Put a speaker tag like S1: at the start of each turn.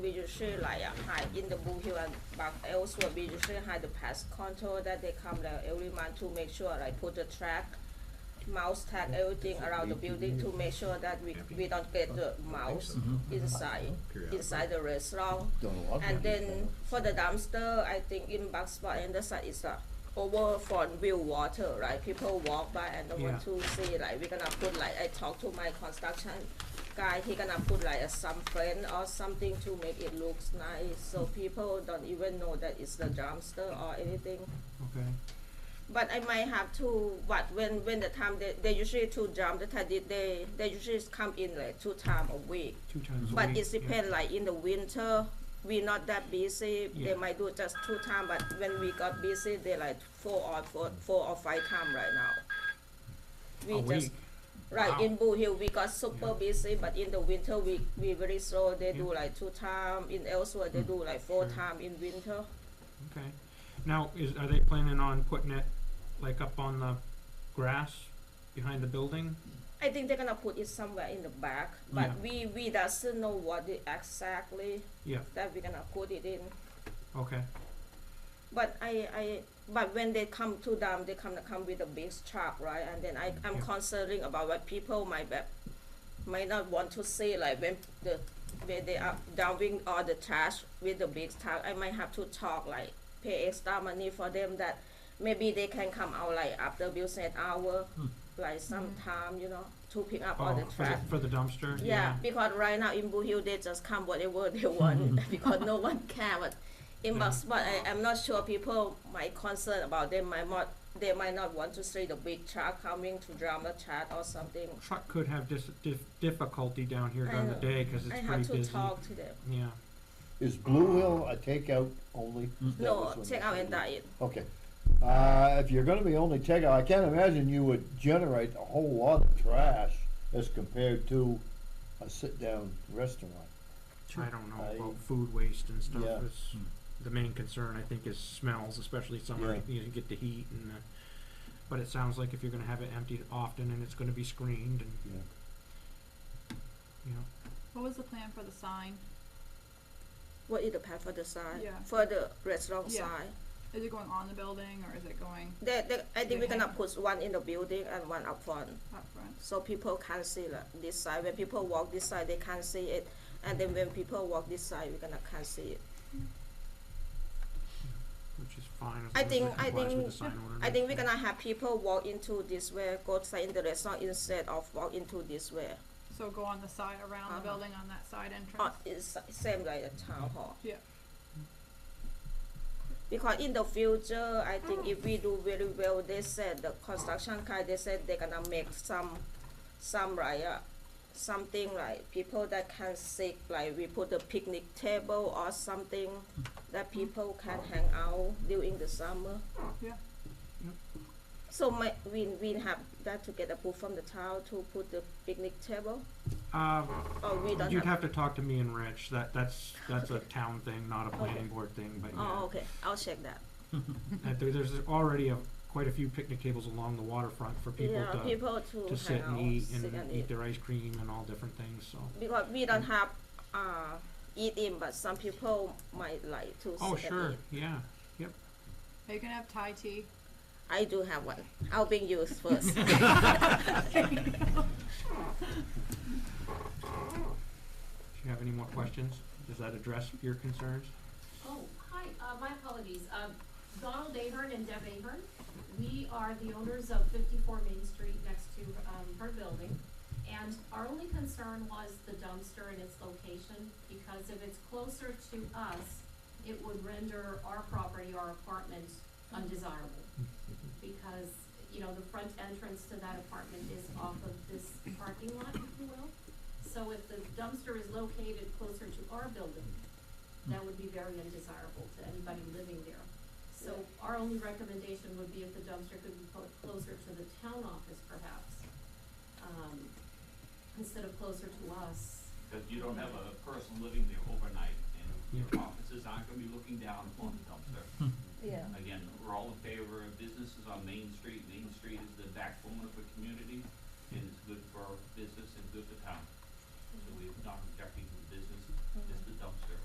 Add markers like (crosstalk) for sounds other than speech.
S1: 比如是 like a high in the book here and but elsewhere 比如是 high the pest control that they come like every month to make sure like put the track mouse tag everything around the building to make sure that we we don't get the mouse inside inside the restaurant
S2: Don't know what
S1: and
S2: we
S1: then for the dumpster I think in back spot and the side is uh over front view water right people walk by and don't want
S3: Yeah.
S1: to see like we're gonna put like I talk to my construction guy he gonna put like a some friend or something to make it looks nice so people don't even know that it's the dumpster or anything
S3: Okay,
S1: but I might have to what when when the time they, they usually two jump the time they they they usually come in like two time a week.
S3: two times a
S1: But
S3: week,
S1: it
S3: yeah.
S1: depends like in the winter we not that busy.
S3: Yeah.
S1: They might do just two time but when we got busy they like four or four four or five time right now. We
S3: A
S1: just
S3: week,
S1: right
S3: Wow.
S1: in Bull Hill we got super
S3: Yeah.
S1: busy but in the winter we we very slow. They do like two time in elsewhere they do like four
S3: Hmm. Sure.
S1: time in winter.
S3: okay. Now, is, are they planning on putting it like up on the grass behind the building?
S1: I think they're gonna put it somewhere in the back, but
S3: Yeah.
S1: we we doesn't know what it exactly
S3: Yeah,
S1: that we're gonna put it in.
S3: okay,
S1: But I I but when they come to them, they come come with a big truck, right? And then I I'm
S3: Yeah.
S1: concerning about what people might be, might not want to see like when the when they are dumping all the trash with the big truck. I might have to talk like pay extra money for them that maybe they can come out like after business hour, like sometime you know to pick up all
S3: Hmm. oh,
S1: the
S3: for the,
S1: trash.
S3: for the dumpster,
S1: Yeah,
S3: yeah,
S1: because right now in Blue Hill they just come whatever (laughs) they want because no one care. But in
S3: Mm-hmm. Yeah.
S1: yeah. spot, I am not sure people might concern about them might not they might not want to see the big truck coming to drum the chat or something.
S3: truck could have dis- dif- difficulty down here
S1: I
S3: during the
S1: know.
S3: day, cause
S1: I
S3: it's
S1: have
S3: pretty
S1: to
S3: busy.
S1: talk to them.
S3: Yeah,
S2: Is Blue Hill a takeout only? That
S1: No,
S2: was what
S1: check
S2: I
S1: out and
S2: said.
S1: diet.
S2: Okay. Uh, if you're gonna be only takeout, I can't imagine you would generate a whole lot of trash as compared to a sit-down restaurant.
S3: I don't know
S2: I-
S3: about food waste and stuff,
S2: Yeah. Hmm.
S3: it's, the main concern, I think, is smells, especially summer,
S2: Yeah.
S3: you know, you get the heat and the, but it sounds like if you're gonna have it emptied often and it's gonna be screened and,
S2: Yeah.
S3: you know,
S4: What was the plan for the sign?
S1: What is the path for the side?
S4: Yeah.
S1: For the restaurant
S4: Yeah.
S1: side.
S4: Is it going on the building or is it going
S1: They, they, I think
S4: They
S1: we're gonna
S4: have-
S1: put one in the building and one up front.
S4: up front?
S1: so people can see like, this side. When people walk this side, they can't see it, and then when people walk this side, we're gonna can't see it.
S3: which is fine as
S1: I
S3: long as it
S1: think- I
S3: complies with
S1: think-
S3: the sign
S1: I think we're
S3: ordinance.
S1: gonna have people walk into this way, go inside in the restaurant instead of walk into this way.
S4: So go on the side, around
S1: Uh-huh. Uh,
S4: the building on that side entrance?
S1: Or it's same like a town hall.
S4: Yeah.
S1: Because in the future, I think
S4: Oh.
S1: if we do very well, they said the construction guy, they said they're gonna make some, some like, uh, something like people that can sit, like we put a picnic table or something that people can hang out during the summer.
S4: Yeah.
S3: Yep.
S1: So my, we, we have that to get approved from the town to put the picnic table,
S3: Uh,
S1: or we don't
S3: you'd
S1: have?
S3: have to talk to me and Rich, that, that's, that's a town thing, not a planning board thing, but
S1: Oh,
S3: yeah.
S1: okay, I'll check that.
S3: Uh, there- There's already a, quite a few picnic tables along the waterfront for people
S1: Yeah,
S3: to,
S1: people to
S3: to
S1: hang
S3: sit
S1: out,
S3: and eat
S1: sit
S3: and
S1: and
S3: eat their ice cream and all different things, so.
S1: because we don't have uh, eat in, but some people might like to.
S3: Oh,
S1: sit and
S3: sure,
S1: eat.
S3: yeah,
S4: Are you gonna have Thai tea?
S1: I do have one. I'll bring you
S3: (laughs)
S1: first.
S3: if you have any more questions, does that address your concerns?
S5: Oh, hi, uh, my apologies. Um, Donald Ahern and Deb Ahern. We are the owners of fifty-four Main Street next to, um, her building. And our only concern was the dumpster and its location, because if it's closer to us, it would render our property, our apartment undesirable. Because, you know, the front entrance to that apartment is off of this parking lot, if you will. So if the dumpster is located closer to our building, that would be very undesirable to anybody living there. So our only recommendation would be if the dumpster could be put closer to the town office perhaps, um, instead of closer to us.
S6: Because you don't have a person living there overnight, and your
S3: Yeah.
S6: offices aren't gonna be looking down upon the dumpster.
S1: yeah.
S6: Again, we're all in favor of businesses on Main Street, Main